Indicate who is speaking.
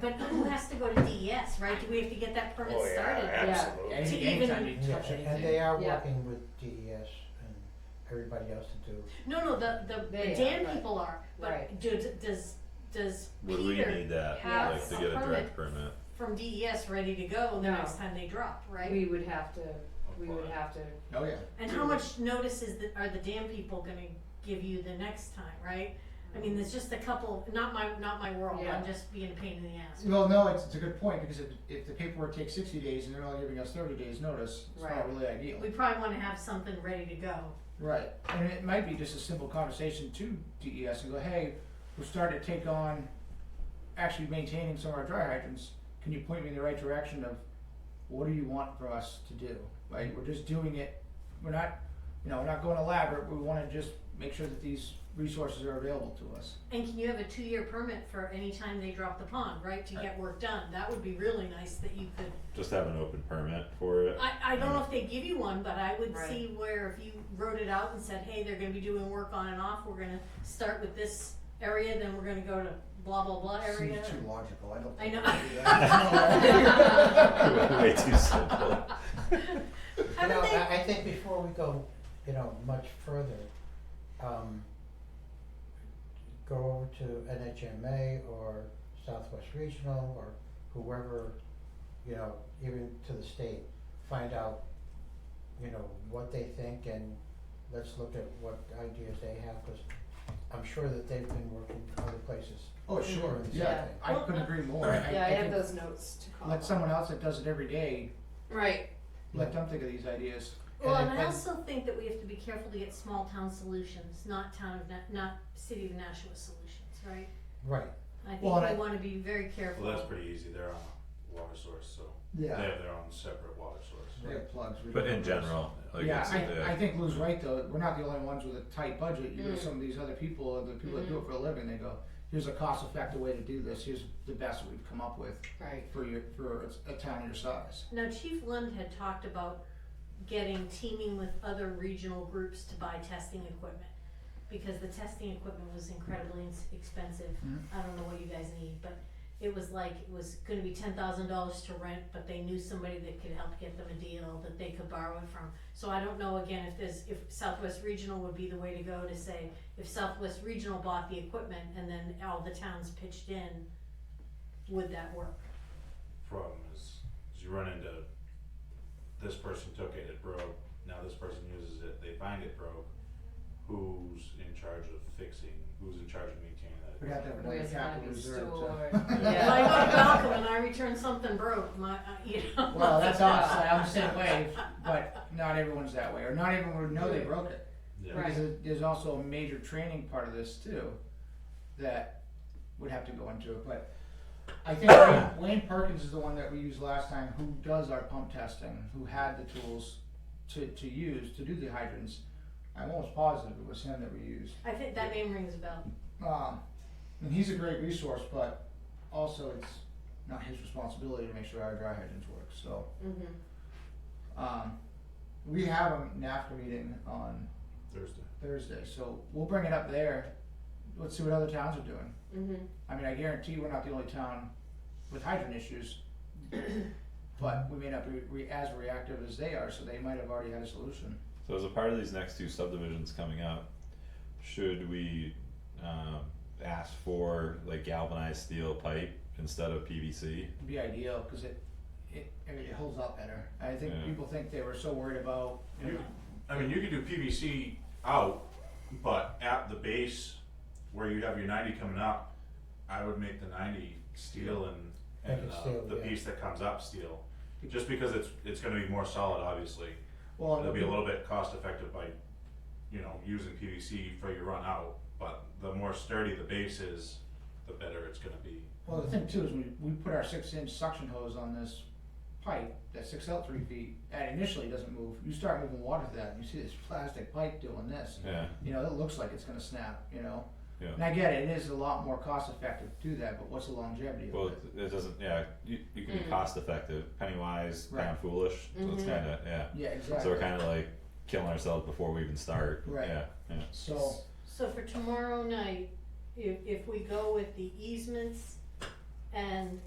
Speaker 1: But who has to go to DES, right? Do we have to get that permit
Speaker 2: Oh,
Speaker 1: started?
Speaker 2: yeah, absolutely.
Speaker 1: To
Speaker 3: Any,
Speaker 1: even-
Speaker 3: anytime you
Speaker 4: Yeah,
Speaker 3: touch
Speaker 4: and- and
Speaker 3: anything,
Speaker 4: they are
Speaker 5: Yeah.
Speaker 4: working with DES and everybody else to do,
Speaker 1: No, no, the, the the
Speaker 5: They are,
Speaker 1: Dan
Speaker 5: right.
Speaker 1: people are, but
Speaker 5: Right.
Speaker 1: do, does, does
Speaker 6: Would we
Speaker 1: Peter
Speaker 6: need that,
Speaker 1: have
Speaker 6: like, to
Speaker 1: a
Speaker 6: get a
Speaker 1: permit
Speaker 6: direct permit?
Speaker 1: from DES ready to go the
Speaker 5: No.
Speaker 1: next time they drop, right?
Speaker 5: We would have to, we would
Speaker 3: Apply.
Speaker 5: have to,
Speaker 3: oh yeah.
Speaker 1: And how much notice is that, are the Dan people gonna give you the next time, right? I mean, there's just a couple, not my, not my world,
Speaker 5: Yeah.
Speaker 1: I'm just being a pain in the ass.
Speaker 3: Well, no, it's, it's a good point, because if, if the paperwork takes sixty days and they're only giving us thirty days notice, it's
Speaker 5: Right.
Speaker 3: not really ideal.
Speaker 1: We probably wanna have something ready to go.
Speaker 3: Right, and it might be just a simple conversation to DES and go, hey, we're starting to take on actually maintaining some of our dry hydrants, can you point me in the right direction of what do you want for us to do, right, we're just doing it, we're not, you know, we're not going elaborate, we wanna just make sure that these resources are available to us.
Speaker 1: And can you have a two-year permit for any time they drop the pond, right, to get work done? That would be really nice that you could
Speaker 6: Just have an open permit for it?
Speaker 1: I, I don't know if they give you one, but I would
Speaker 5: Right.
Speaker 1: see where if you wrote it out and said, hey, they're gonna be doing work on and off, we're gonna start with this area, then we're gonna go to blah, blah, blah area.
Speaker 4: seems too logical, I don't
Speaker 1: I know.
Speaker 4: think. we do that.
Speaker 6: Way too simple.
Speaker 1: I
Speaker 4: You know,
Speaker 1: would think,
Speaker 4: I, I think before we go, you know, much further, um, go over to NHMA or Southwest Regional or whoever, you know, even to the state, find out, you know, what they think and let's look at what ideas they have, cause I'm sure that they've been working other places.
Speaker 3: Oh,
Speaker 4: sure,
Speaker 3: Yeah,
Speaker 4: yeah.
Speaker 3: I couldn't agree more, I, I
Speaker 5: yeah, I have
Speaker 3: think
Speaker 5: those notes to call.
Speaker 3: let someone else that does it every day,
Speaker 5: Right,
Speaker 3: let them think of these ideas.
Speaker 1: well,
Speaker 4: And
Speaker 1: and I
Speaker 4: then-
Speaker 1: also think that we have to be careful to get small town solutions, not town of, Na- not city of Nashua solutions, right?
Speaker 4: Right,
Speaker 1: I think
Speaker 3: Well, and
Speaker 1: we
Speaker 3: I-
Speaker 1: wanna be very careful.
Speaker 7: Well, that's pretty easy. They're on a water source, so they have their own separate water source.
Speaker 3: They have plugs. we
Speaker 6: But
Speaker 3: don't
Speaker 6: in
Speaker 3: have
Speaker 6: general, like,
Speaker 3: yeah,
Speaker 6: it's, uh,
Speaker 3: I, I
Speaker 6: yeah,
Speaker 3: think Lou's right though. We're not the only ones with a tight budget. You know,
Speaker 1: Mm.
Speaker 3: some of these other people, or the people that do it for a living, they go, "Here's a cost-effective way to do this. Here's the best we've come up with
Speaker 5: right.
Speaker 3: for your for a town your size."
Speaker 1: Now, Chief Lund had talked about getting, teaming with other regional groups to buy testing equipment. Because the testing equipment was incredibly ins- expensive,
Speaker 3: Mhm.
Speaker 1: I don't know what you guys need, but it was like, it was gonna be ten thousand dollars to rent, but they knew somebody that could help get them a deal that they could borrow it from. So I don't know again if there's, if Southwest Regional would be the way to go to say, if Southwest Regional bought the equipment and then all the towns pitched in, would that work?
Speaker 7: Problem is, is you run into this person took it, it broke. Now this person uses it, they find it broke. Who's in charge of fixing? Who's in charge of maintaining that?
Speaker 3: We'd have to have another
Speaker 5: Where's
Speaker 3: capital
Speaker 5: money
Speaker 3: reserve.
Speaker 5: stored?
Speaker 3: To,
Speaker 5: Yeah.
Speaker 1: When I go to Malcolm and I return something broke, my, uh, you know.
Speaker 3: well, that's us. Like, I'm the same way, but not everyone's that way, or not everyone would know they broke it.
Speaker 7: Yeah.
Speaker 5: Right.
Speaker 3: Because there- there's also a major training part of this too, that would have to go into it, but I think Wayne- Wayne Perkins is the one that we used last time, who does our pump testing, who had the tools to, to use, to do the hydrants. I'm almost positive it was him that we used.
Speaker 1: I think that name rings a bell.
Speaker 3: Um, and he's a great resource, but also it's not his responsibility to make sure our dry hydrants work, so.
Speaker 5: Mm-hmm.
Speaker 3: Um, we have a NAFTA meeting on
Speaker 7: Thursday.
Speaker 3: Thursday, so we'll bring it up there. Let's see what other towns are doing.
Speaker 5: Mm-hmm.
Speaker 3: I mean, I guarantee we're not the only town with hydrant issues, but we may not be re- as reactive as they are, so they might have already had a solution.
Speaker 6: so as a part of these next two subdivisions coming up, should we, um, ask for like galvanized steel pipe instead of PVC?
Speaker 3: It'd be ideal because it, it, I mean, it holds up better. I think
Speaker 6: Yeah.
Speaker 3: people think they were so worried about. You know,
Speaker 7: You, I mean, you could do PVC out, but at the base where you have your ninety coming up, I would make the ninety steel and, and
Speaker 4: Make it
Speaker 7: uh,
Speaker 4: steel,
Speaker 7: the
Speaker 4: yeah.
Speaker 7: piece that comes up steel. Just because it's, it's gonna be more solid, obviously.
Speaker 3: well,
Speaker 7: It'll be a little bit cost effective by, you know, using PVC for your run out, but the more sturdy the base is, the better it's gonna be.
Speaker 3: Well, the thing too is we, we put our six inch suction hose on this pipe that's six out three feet and initially doesn't move. You start moving water to that, and you see this plastic pipe doing this.
Speaker 6: Yeah,
Speaker 3: you know, it looks like it's gonna snap, you know?
Speaker 6: Yeah.
Speaker 3: And I get it, it is a lot more cost effective to do that, but what's the longevity
Speaker 6: well,
Speaker 3: of it?
Speaker 6: it- it doesn't, yeah, you, you can be
Speaker 5: Mm.
Speaker 6: cost effective, penny wise,
Speaker 3: Right.
Speaker 6: pound foolish, so
Speaker 1: Mm-hmm.
Speaker 6: it's
Speaker 5: Mhm.
Speaker 6: kinda, yeah.
Speaker 3: Yeah,
Speaker 6: So
Speaker 3: exactly.
Speaker 6: we're kinda like killing ourselves before we even start,
Speaker 3: Right.
Speaker 6: yeah, yeah.
Speaker 3: So,
Speaker 1: So for tomorrow night, if, if we go with the easements and